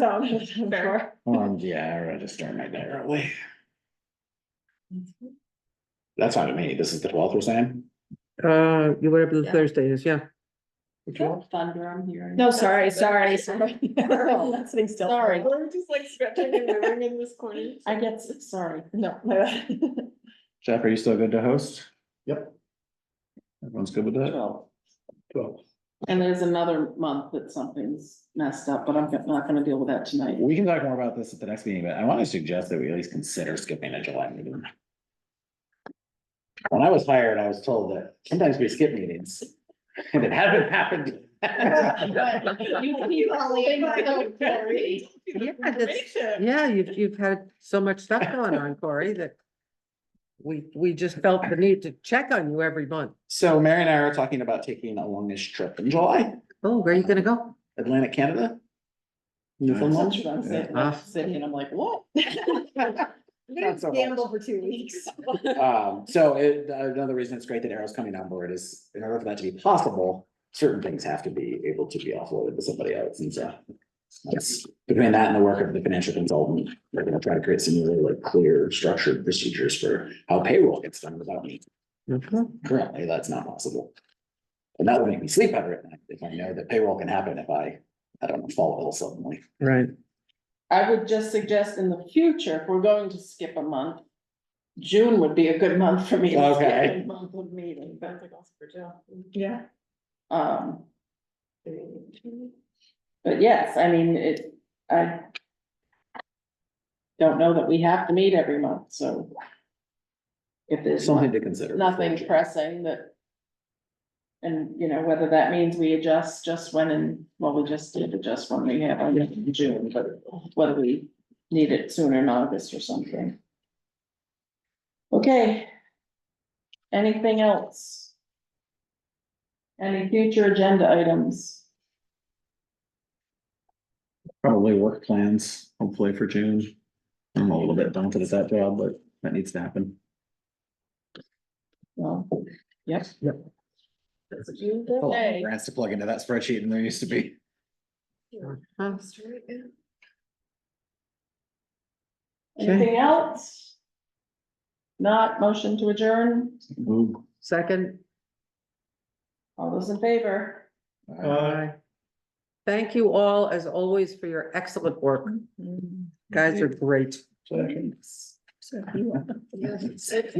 zone, I'm sure. Um, yeah, I already started my day early. That's not me. This is the twelfth we're saying? Uh, you- whatever the Yeah. Thursday is, yeah. Thunder, I'm hearing. No, sorry, sorry, sorry. I'm not Sitting still. Sorry. We're just like stretching and moving in this corner. I get, sorry. No, my bad. Jeff, are you still good to host? Yep. Everyone's good with that? Twelve. And there's another month that something's messed up, but I'm not gonna deal with that tonight. We can talk more about this at the next meeting, but I want to suggest that we at least consider skipping a July meeting. When I was hired, I was told that sometimes we skip meetings. And it hasn't happened. Yeah, that's- yeah, you've, you've had so much stuff going on, Corey, that we, we just felt the need to check on you every month. So Mary and I are talking about taking a longish trip in July, Oh, where are you gonna go? Atlantic Canada. Newfoundland. Sometimes I'm sick, Yeah. I'm sick, and I'm like, what? Not so much. Gamble for two weeks. Um, so it, another reason it's great that Arrow's coming on board is in order for that to be possible, certain things have to be able to be offloaded to somebody else and so. that's- between that and the work of the financial consultant, we're gonna try to create some really like clear structured procedures for how payroll gets done without me. Mhm. Currently, that's not possible. And that would make me sleep better at night if I know that payroll can happen if I, I don't know, fall ill suddenly. Right, I would just suggest in the future, if we're going to skip a month, June would be a good month for me. to skip Okay. a Month of meeting, but, Yeah. um. But yes, I mean, it, I. Don't know that we have to meet every month, so. If there's Something to consider. nothing pressing that. And, you know, whether that means we adjust just when and, well, we just did adjust when we have, our meeting in June, but whether we need it sooner in August or something. Okay. Anything else? Any future agenda items? Probably work plans, hopefully for June. I'm a little bit daunted at that job, but that needs to happen. Well, yep. Yep. A lot Okay. of Grants to plug into that spreadsheet and there used to be. Uh-huh. Huh? Anything else? Not motion to adjourn? Ooh. second, All those in favor? Uh, Aye. Thank you all, as always, for your excellent work. Guys are great. So-